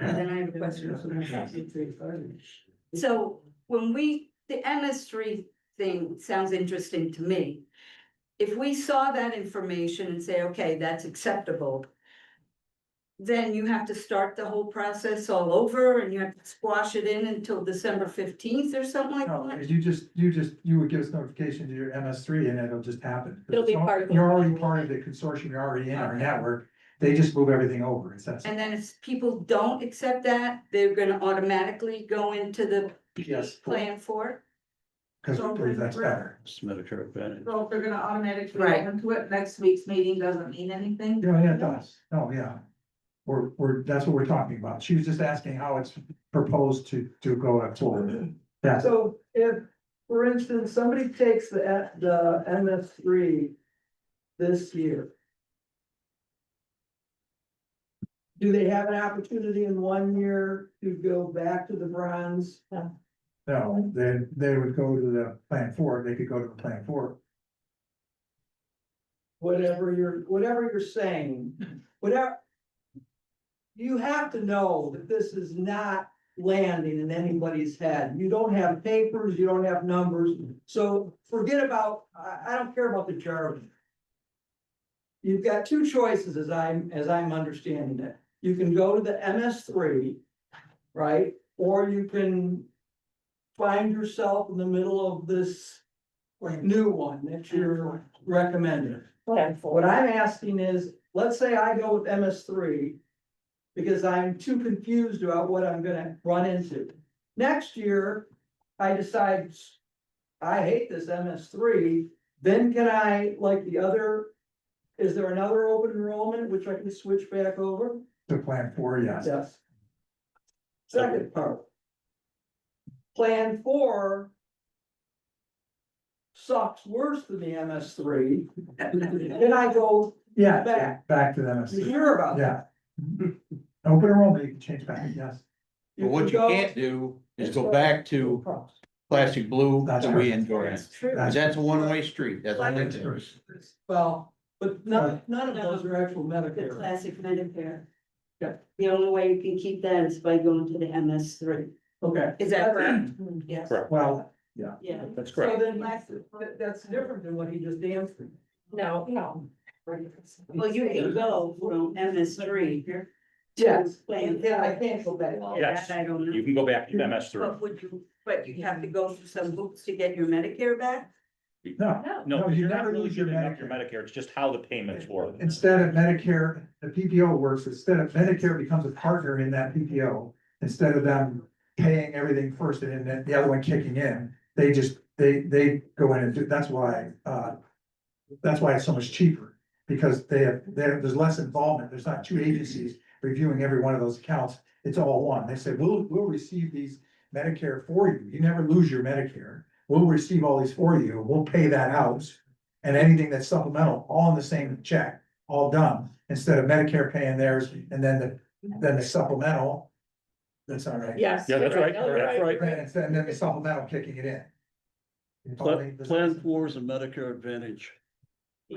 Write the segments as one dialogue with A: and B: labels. A: And then I have a question for my sixty-three furnish. So when we, the MS three thing sounds interesting to me. If we saw that information and say, okay, that's acceptable. Then you have to start the whole process all over and you have to squash it in until December fifteenth or something like
B: No,
A: that.
B: Oh, you just, you just, you would give us notification to your MS three and it'll just happen.
C: It'll be part of the-
B: You're already part of the consortium, you're already in our network, they just move everything over, it's that.
A: And then if people don't accept that, they're gonna automatically go into the
B: Yes.
A: plan for it.
B: Cause we believe that's better.
D: It's Medicare advantage.
E: So if they're gonna automatically
A: Right.
E: go into it, next week's meeting doesn't mean anything.
B: Yeah, yeah, it does, oh, yeah. We're, we're, that's what we're talking about, she was just asking how it's proposed to, to go forward. That's,
F: So if, for instance, somebody takes the, the MS three this year. Do they have an opportunity in one year to go back to the bronze?
B: no, they, they would go to the plan four, they could go to the plan four.
F: Whatever you're, whatever you're saying, whatever. You have to know that this is not landing in anybody's head. You don't have papers, you don't have numbers. So forget about, I, I don't care about the jargon. You've got two choices as I'm, as I'm understanding it. You can go to the MS three, right? Or you can find yourself in the middle of this new one that you're recommending.
C: Plan for.
F: What I'm asking is, let's say I go with MS three. Because I'm too confused about what I'm gonna run into. Next year, I decide. I hate this MS three, then can I, like the other? Is there another open enrollment which I can switch back over?
B: To plan four, yes,
F: Yes. Second part. Plan four. Sucks worse than the MS three, then I go
B: yeah,
F: Back.
B: back to the MS
F: you
B: three,
F: sure about that?
B: yeah. Open enrollment, you can change back, yes.
D: But what
F: could
D: you
F: go-
D: can't do is go back to
F: Across.
D: classic blue
B: That's
D: that we enjoy.
A: That's true.
D: Cause that's a one-way street. That's
E: Like-
D: only two.
F: Well, but none, none of
A: No.
F: those are actual
A: The
F: Medicare.
A: classic Medicare.
F: Yeah.
A: The only way you can keep that is by going to the MS three.
F: Okay.
A: Is that correct? Yes.
D: Correct.
B: Well,
A: Yeah.
D: That's
F: So
D: correct.
F: then that's, that- that's different than what he just answered.
C: No, no.
A: Well, you can go from MS three.
F: Yes.
A: Plan.
F: Yeah, I can't go back.
G: Yes.
A: I don't
G: You
A: know.
G: can go back to MS three.
A: But would you, but you have to go through some hoops to get your Medicare back?
B: no,
G: No,
B: No,
G: because
B: you
G: you're not
B: never
G: really
B: lose your
G: giving up your
B: Medicare.
G: Medicare, it's just how the payments work.
B: instead of Medicare, the PPO works, instead of Medicare becomes a partner in that PPO. Instead of them paying everything first and then the other one kicking in, they just, they, they go in and do, that's why, uh. That's why it's so much cheaper, because they have, they have- there's less involvement, there's not two agencies reviewing every one of those accounts. It's all one, they say, we'll, we'll receive these Medicare for you, you never lose your Medicare. We'll receive all these for you, we'll pay that out, and anything that's supplemental, all in the same check all done, instead of Medicare paying theirs and then the, then the supplemental. That's all right.
C: Yes.
G: Yeah, that's
C: you're
G: right,
C: No, you're
G: that's right.
B: And then- and then the supplemental kicking it in. It's all
D: Plan,
B: the-
D: Plan Four is a Medicare Advantage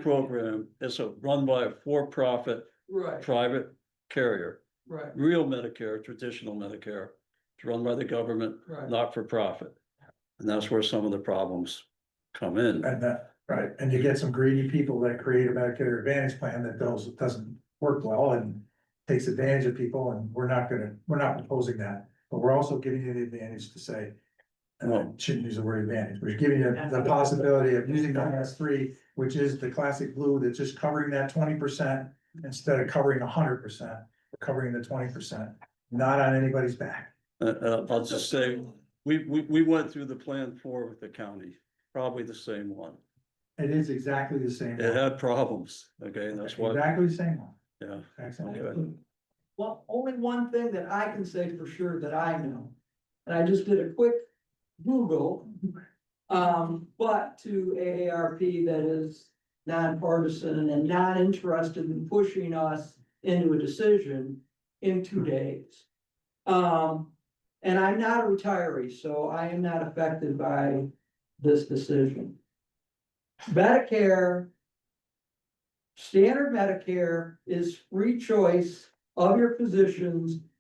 D: program. It's a run by a for-profit
F: Right,
D: private carrier.
F: right,
D: Real Medicare, traditional Medicare, it's run by the government,
F: right.
D: not for profit. And that's where some of the problems come in.
B: And that, right, and you get some greedy people that create a Medicare Advantage plan that does, doesn't work well and. Takes advantage of people and we're not gonna, we're not proposing that, but we're also giving you the advantage to say. And I shouldn't use the word advantage, we're giving you the possibility of using the MS three, which is the classic blue that's just covering that twenty percent. Instead of covering hundred percent, covering the twenty percent, not on anybody's back.
D: Uh, uh, I'll just say, we, we, we went through the Plan Four with the county, probably the same one.
B: It is exactly the same.
D: It had problems, okay, and that's why,
B: Exactly the same one.
D: yeah.
B: Excellent.
D: Okay.
F: Well, only one thing that I can say for sure that I know, and I just did a quick Google. Um, but to AARP that is nonpartisan and not interested in pushing us into a decision in two days. Um, and I'm not a retiree, so I am not affected by this decision. Medicare. Standard Medicare is free choice of your physicians